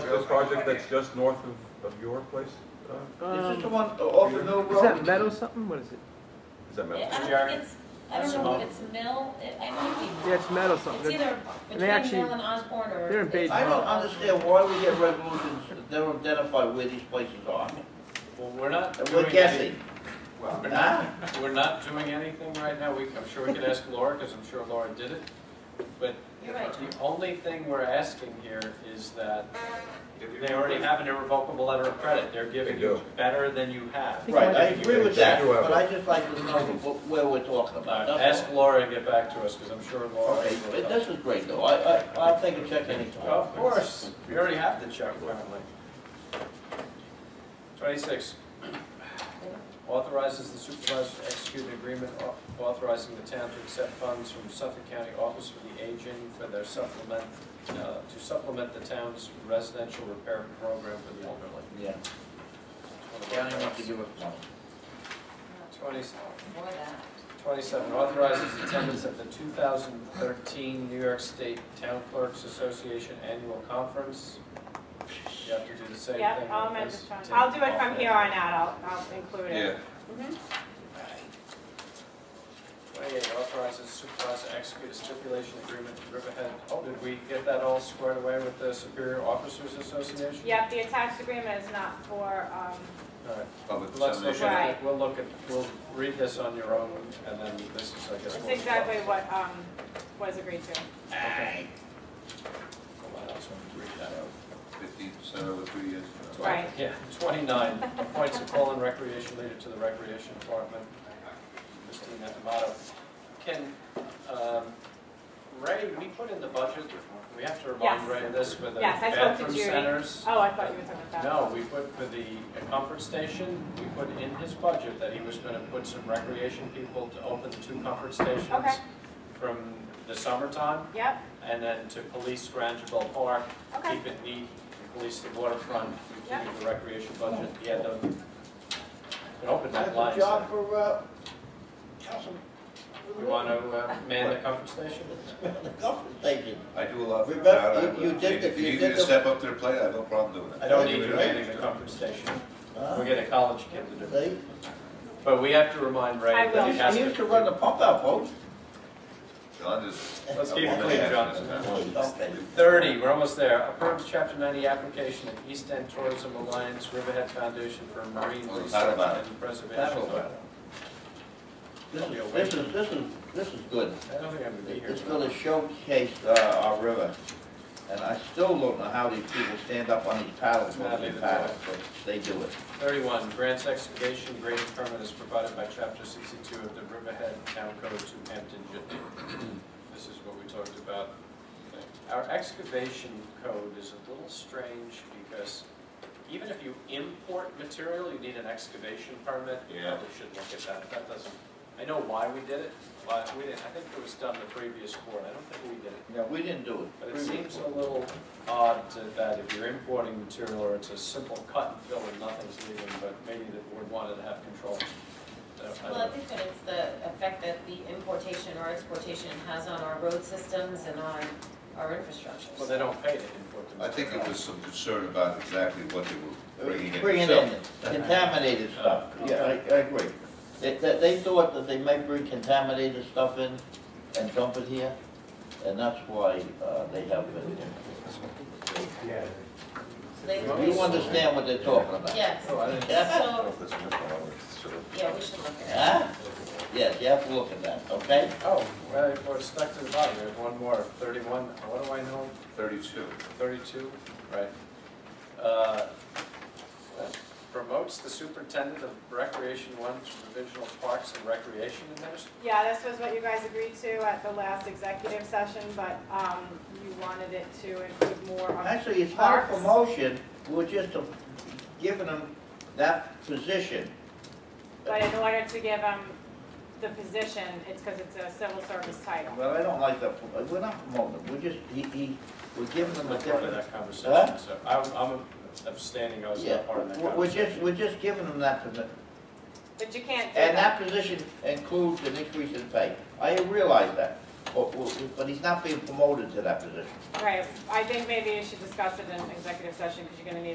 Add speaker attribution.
Speaker 1: this project that's just north of, of your place? uh,
Speaker 2: Is this the
Speaker 3: Um,
Speaker 2: one off of Mill Road?
Speaker 3: Is that metal something? What is it?
Speaker 1: Is that
Speaker 4: I
Speaker 1: Meadows?
Speaker 4: don't think it's, I don't know if it's Mill, it- I might
Speaker 3: Yeah, it's metal something.
Speaker 4: be, it's either
Speaker 3: they
Speaker 4: between
Speaker 3: actually-
Speaker 4: Mill and Osborne or.
Speaker 3: they're in Bay-
Speaker 4: it's-
Speaker 2: I don't understand why we get resolutions that don't identify where these places are.
Speaker 5: Well, we're not
Speaker 2: And
Speaker 5: doing
Speaker 2: we're
Speaker 5: any-
Speaker 2: guessing,
Speaker 5: Well, we're not-
Speaker 2: huh?
Speaker 5: We're not doing anything right now. We, I'm sure we could ask Laura, because I'm sure Laura did it. But
Speaker 4: You're right.
Speaker 5: the only thing we're asking here is that they already have an irrevocable letter of credit. They're giving
Speaker 1: They
Speaker 5: you
Speaker 1: do.
Speaker 5: better than you have.
Speaker 3: think
Speaker 2: Right,
Speaker 3: it
Speaker 2: I
Speaker 3: might
Speaker 5: be-
Speaker 2: agree with that,
Speaker 1: You have
Speaker 2: but
Speaker 1: it.
Speaker 2: I just like to know wh- where we're talking
Speaker 5: Uh,
Speaker 2: about. that's
Speaker 5: Ask
Speaker 2: all.
Speaker 5: Laura and get back to us, because I'm sure Laura.
Speaker 2: Okay,
Speaker 5: will-
Speaker 2: but this is great though, I, I, I'll take a check anytime.
Speaker 5: Of course, we already have the check apparently. Twenty-six, authorizes the supervisor to execute an agreement au- authorizing the town to accept funds from Suffolk County Office for the Aging for their supplement, uh, to supplement the town's residential repair program for the elderly.
Speaker 2: Yeah, county wants to give us money.
Speaker 5: Twenty,
Speaker 4: For that.
Speaker 5: twenty-seven, authorizes attendance at the two thousand thirteen New York State Town Clerks Association Annual Conference. You have to do the same thing.
Speaker 6: Yep, I'll
Speaker 5: with
Speaker 6: amend
Speaker 5: this.
Speaker 6: this one.
Speaker 5: Take
Speaker 6: I'll do it
Speaker 5: off
Speaker 6: from
Speaker 5: that.
Speaker 6: here on out, I'll, I'll include it.
Speaker 5: Twenty-eight, authorizes supervisor to execute a stipulation agreement with Riverhead. Oh, did we get that all squared away with the Superior Officers Association?
Speaker 6: Yep, the attached agreement is not for, um,
Speaker 5: All right,
Speaker 1: Public
Speaker 5: let's look
Speaker 1: dissemination.
Speaker 5: at it,
Speaker 6: Right.
Speaker 5: we'll look at, we'll read this on your own, and then this is, I guess.
Speaker 6: it's
Speaker 5: what we-
Speaker 6: exactly what, um, was agreed to.
Speaker 5: Okay. Hold on, I just wanted to read that out.
Speaker 1: Fifteen percent over three years.
Speaker 5: Twen-
Speaker 6: Right.
Speaker 5: Yeah, twenty-nine, appoints a call and recreation leader to the recreation department, Christine Amato. Can, um, Ray, we put in the budget, we have to remind
Speaker 6: Yes.
Speaker 5: Ray of this with the
Speaker 6: Yes, I spoke to
Speaker 5: bathroom
Speaker 6: Judy.
Speaker 5: centers.
Speaker 6: Oh, I thought you were talking about that.
Speaker 5: No, we put for the comfort station, we put in his budget that he was gonna put some recreation people to open two comfort stations
Speaker 6: Okay.
Speaker 5: from the summertime,
Speaker 6: Yep,
Speaker 5: and then to police Grangeville Park
Speaker 6: okay,
Speaker 5: keep it neat, police the waterfront, we
Speaker 6: Yeah.
Speaker 5: keep the recreation budget, he had them, an open
Speaker 2: That's
Speaker 5: that
Speaker 2: a
Speaker 5: line.
Speaker 2: job for, uh, Councilman.
Speaker 5: We want to uh, man the comfort station?
Speaker 2: The government station.
Speaker 1: I do a lot for the
Speaker 2: Remember,
Speaker 1: crowd. I
Speaker 2: you- you
Speaker 1: would-
Speaker 2: did the-
Speaker 1: If you
Speaker 2: you
Speaker 1: need me
Speaker 2: did
Speaker 1: to
Speaker 2: the-
Speaker 1: step up to the plate, I have no problem doing it.
Speaker 5: I don't need you manning the comfort station,
Speaker 2: Huh?
Speaker 5: we get a college kid to do it.
Speaker 2: See?
Speaker 5: But we have to remind Ray
Speaker 6: I
Speaker 5: that he
Speaker 6: will.
Speaker 5: has
Speaker 2: He used to run the
Speaker 5: to.
Speaker 2: pump out, folks.
Speaker 1: John just.
Speaker 5: Let's keep it
Speaker 1: I'm
Speaker 5: clean,
Speaker 1: gonna
Speaker 5: John.
Speaker 1: ask him that.
Speaker 2: Okay.
Speaker 5: Thirty, we're almost there, approves chapter ninety application of East End Tourism Alliance Riverhead Foundation for Marine
Speaker 1: Well, it's not
Speaker 5: Research
Speaker 1: about it.
Speaker 5: and Preservation.
Speaker 2: That'll work. This is, this is, this is, this is good.
Speaker 5: I don't think I'm gonna be here.
Speaker 2: It's
Speaker 5: tomorrow.
Speaker 2: gonna showcase, uh, our river. And I still don't know how these people stand up on these paddles,
Speaker 5: Not
Speaker 2: on these
Speaker 5: even
Speaker 2: paddles, but they do it.
Speaker 5: 31, grants excavation grading permit is provided by Chapter 62 of the Riverhead Town Code to Hampton Jitney. This is what we talked about. Our excavation code is a little strange because even if you import material, you need an excavation permit. You
Speaker 1: Yeah.
Speaker 5: probably should look at that. That doesn't, I know why we did it, why we didn't, I think it was done the previous board. I don't think we did it.
Speaker 2: Yeah, we didn't do it.
Speaker 5: But it seems a little odd to- that if you're importing material or it's a simple cut and fill and nothing's leaving, but maybe the board wanted to have control. So, I don't
Speaker 4: Well, I
Speaker 5: know.
Speaker 4: think that it's the effect that the importation or exportation has on our road systems and on our infrastructure.
Speaker 5: Well, they don't pay to import the
Speaker 1: I think
Speaker 5: material.
Speaker 1: it was some concern about exactly what they were bringing in.
Speaker 2: Bringing in contaminated stuff, yeah, I, I agree. They, they, they thought that they might bring contaminated stuff in and dump it here, and that's why, uh, they have it.
Speaker 4: So they-
Speaker 2: You understand what they're talking about?
Speaker 4: Yes,
Speaker 5: Oh, I didn't-
Speaker 1: I don't know
Speaker 4: so,
Speaker 1: if that's in this one, I would- sure.
Speaker 4: yeah, we should look at it.
Speaker 2: Huh? Yes, you have to look at that, okay?
Speaker 5: Oh, well, we're stuck to the bottom, we have one more, thirty-one, what do I know,
Speaker 1: Thirty-two.
Speaker 5: thirty-two, right? Uh, Promotes the superintendent of recreation one to provisional parks and recreation administrator.
Speaker 6: yeah, this was what you guys agreed to at the last executive session, but, um, you wanted it to include more on.
Speaker 2: Actually, it's not a
Speaker 6: Parks.
Speaker 2: promotion, we're just uh, giving them that position.
Speaker 6: But in order to give them the position, it's because it's a civil service title.
Speaker 2: Well, I don't like that, we're not promoting them, we're just, he, he, we're giving them
Speaker 5: I'm
Speaker 2: a
Speaker 5: not part of
Speaker 2: different.
Speaker 5: that
Speaker 2: Huh?
Speaker 5: conversation, so I'm, I'm abstaining, I was
Speaker 2: Yeah,
Speaker 5: not part of that
Speaker 2: we're- we're just,
Speaker 5: conversation.
Speaker 2: we're just giving them that position.
Speaker 6: But you can't do
Speaker 2: And
Speaker 6: that.
Speaker 2: that position includes an increase in pay. I realize that. or- or- but he's not being promoted to that position.
Speaker 6: Right, I think maybe you should discuss it in executive session, because you're gonna need